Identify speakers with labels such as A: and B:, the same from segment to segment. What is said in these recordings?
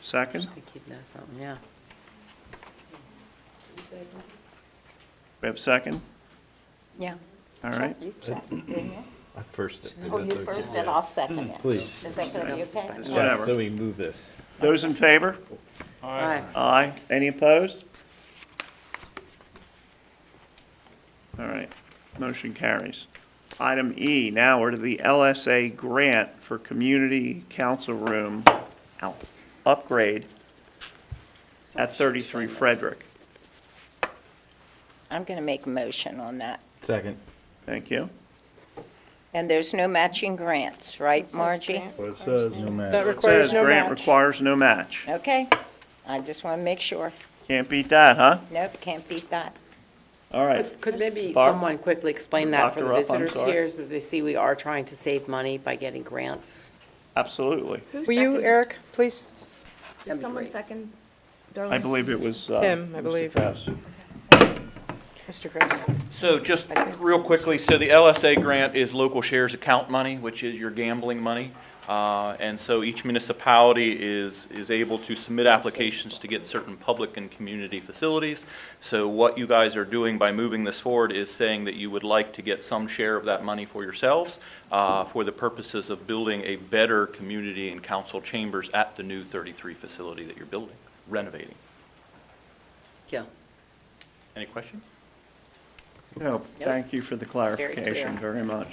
A: Second?
B: Should keep that something, yeah.
A: We have second?
C: Yeah.
A: All right.
C: You second, didn't you?
D: I first it.
C: Oh, you first and I'll second it.
D: Please.
C: Is that gonna be okay?
A: Whatever.
E: So we move this.
A: Those in favor?
B: Aye.
A: Aye. Any opposed? All right, motion carries. Item E, now we're to the LSA grant for community council room out- upgrade at 33 Frederick.
C: I'm gonna make a motion on that.
D: Second.
A: Thank you.
C: And there's no matching grants, right, Margie?
D: What it says. No
C: That
D: matter.
C: requires
A: Says
C: no
A: grant
C: match.
A: requires no match.
C: Okay, I just wanna make sure.
A: Can't beat that, huh?
C: Nope, can't beat that.
A: All right.
B: Could maybe
A: Barb?
B: someone quickly explain that for the
A: Doctor up, I'm
B: visitors
A: sorry.
B: here, so they see we are trying to save money by getting grants?
A: Absolutely.
F: Will you, Eric, please?
B: That'd
G: Did
B: be
G: someone
B: great.
G: second
A: I
G: Darlene's?
A: believe it was. uh,
F: Tim, I
A: Mr.
F: believe.
A: Krause.
F: Mr. Gray.
H: So just real quickly, so the LSA grant is local shares account money, which is your gambling money. Uh, And so each municipality is, is able to submit applications to get certain public and community facilities. So what you guys are doing by moving this forward is saying that you would like to get some share of that money for yourselves uh, for the purposes of building a better community and council chambers at the new 33 facility that you're building, renovating.
B: Yeah.
H: Any questions?
A: No, thank you for the clarification
B: clear.
A: very much.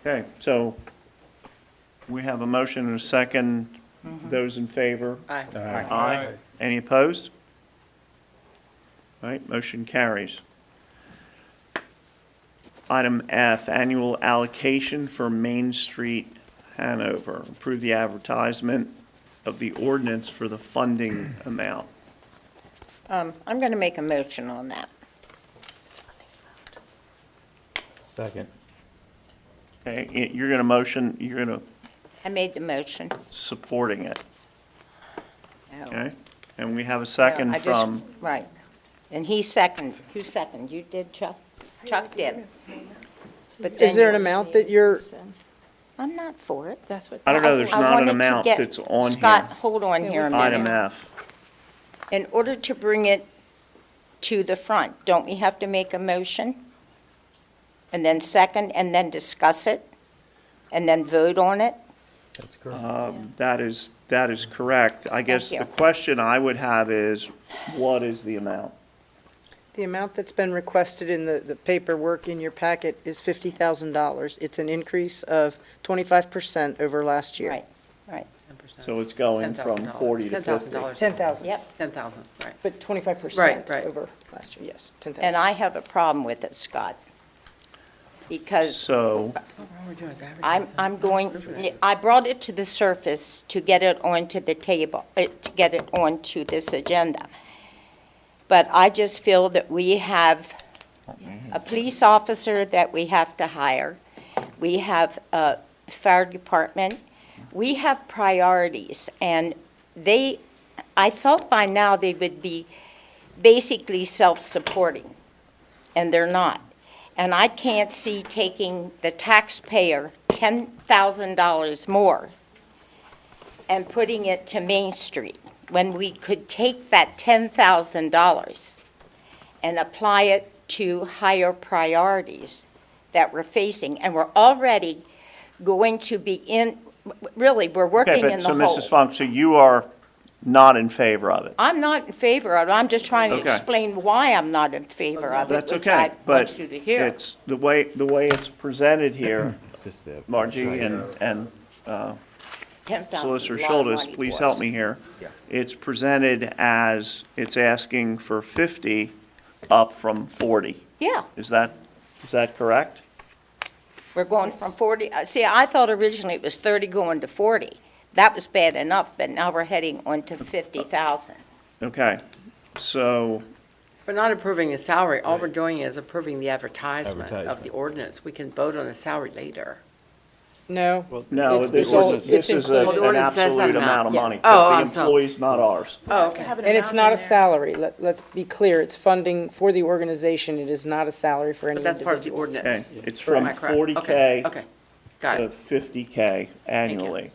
A: Okay, so we have a motion and a second. Those in favor?
B: Aye.
A: Aye. Any opposed? All right, motion carries. Item F, annual allocation for Main Street Hanover. Approve the advertisement of the ordinance for the funding amount.
C: Um, I'm gonna make a motion on that.
D: Second.
A: Okay, y- you're going to motion, you're going to
C: I made the motion.
A: supporting it,
C: Oh.
A: okay? And we have a second
C: I just-
A: from,
C: Right. And he seconds. Who seconded? You did, Chuck? Chuck did. But
F: Is there an
C: then-
F: amount that you're,
C: I'm not for it.
G: That's what.
A: I don't know, there's
C: I
A: not an
C: wanted to
A: amount
C: get-
A: that's on
C: Scott,
A: here.
C: hold on here a
A: Item
C: minute.
A: F.
C: In order to bring it to the front, don't we have to make a motion? And then second, and then discuss it? And then vote on it?
D: That's correct.
A: Um, That is, that is correct. I guess
C: you.
A: the question I would have is, what is the amount?
F: the amount that's been requested in the, the paperwork in your packet is $50,000. It's an increase of 25% over last year.
C: Right, right.
B: 10%.
A: So it's going from
B: $10,000.
A: 40 to 50.
B: $10,000.
F: 10,000.
C: Yep.
B: 10,000, right.
F: But 25%
B: Right, right.
F: over last year, yes, 10,000.
C: And I have a problem with it, Scott. Because
A: So,
C: I'm, I'm going, I brought it to the surface to get it onto the table, uh, to get it onto this agenda. But I just feel that we have a police officer that we have to hire. We have a fire department. We have priorities, and they, I thought by now they would be basically self-supporting, and they're not. And I can't see taking the taxpayer $10,000 more and putting it to Main Street, when we could take that $10,000 and apply it to higher priorities that we're facing. And we're already going to be in, really, we're
A: okay,
C: working in
A: but,
C: the
A: so
C: hole.
A: Mrs. Funk, so you are not in favor of it?
C: I'm not in favor of it. I'm just trying to
A: Okay.
C: explain why I'm not in favor of it,
A: That's
C: which I
A: okay, but
C: want you to hear.
A: it's, the way, the way it's presented here,
D: It's just the-
A: Margie and, and
C: $10,000
A: Solicitor
C: is a lot of
A: Schultes,
C: money
A: please
C: for us.
A: help me here. It's presented as, it's asking for 50 up from 40.
C: Yeah,
A: Is that, is that correct?
C: we're going from 40, uh, see, I thought originally it was 30 going to 40. That was bad enough, but now we're heading on to 50,000.
A: Okay, so,
B: We're not approving the salary. All we're doing is approving the advertisement of the
D: Advertisement.
B: ordinance. We can vote on the salary later.
F: No?
A: no,
F: It's-
A: this
F: it's all-
A: is, this
F: it's
A: is a-
B: Well, the
A: an
B: ordinance says that
A: absolute
B: amount,
A: amount of
B: yeah.
A: money.
B: Oh, I'm
A: Because the
B: sorry.
A: employee's not ours.
B: Oh, okay.
F: And it's not a salary, let, let's be clear, it's funding for the organization, it is not a salary for any
B: But that's part of the
F: individual.
A: Okay,
B: ordinance.
A: it's from
B: Am I correct?
A: 40K
B: Okay, okay. got
A: to
B: it.
A: 50K annually.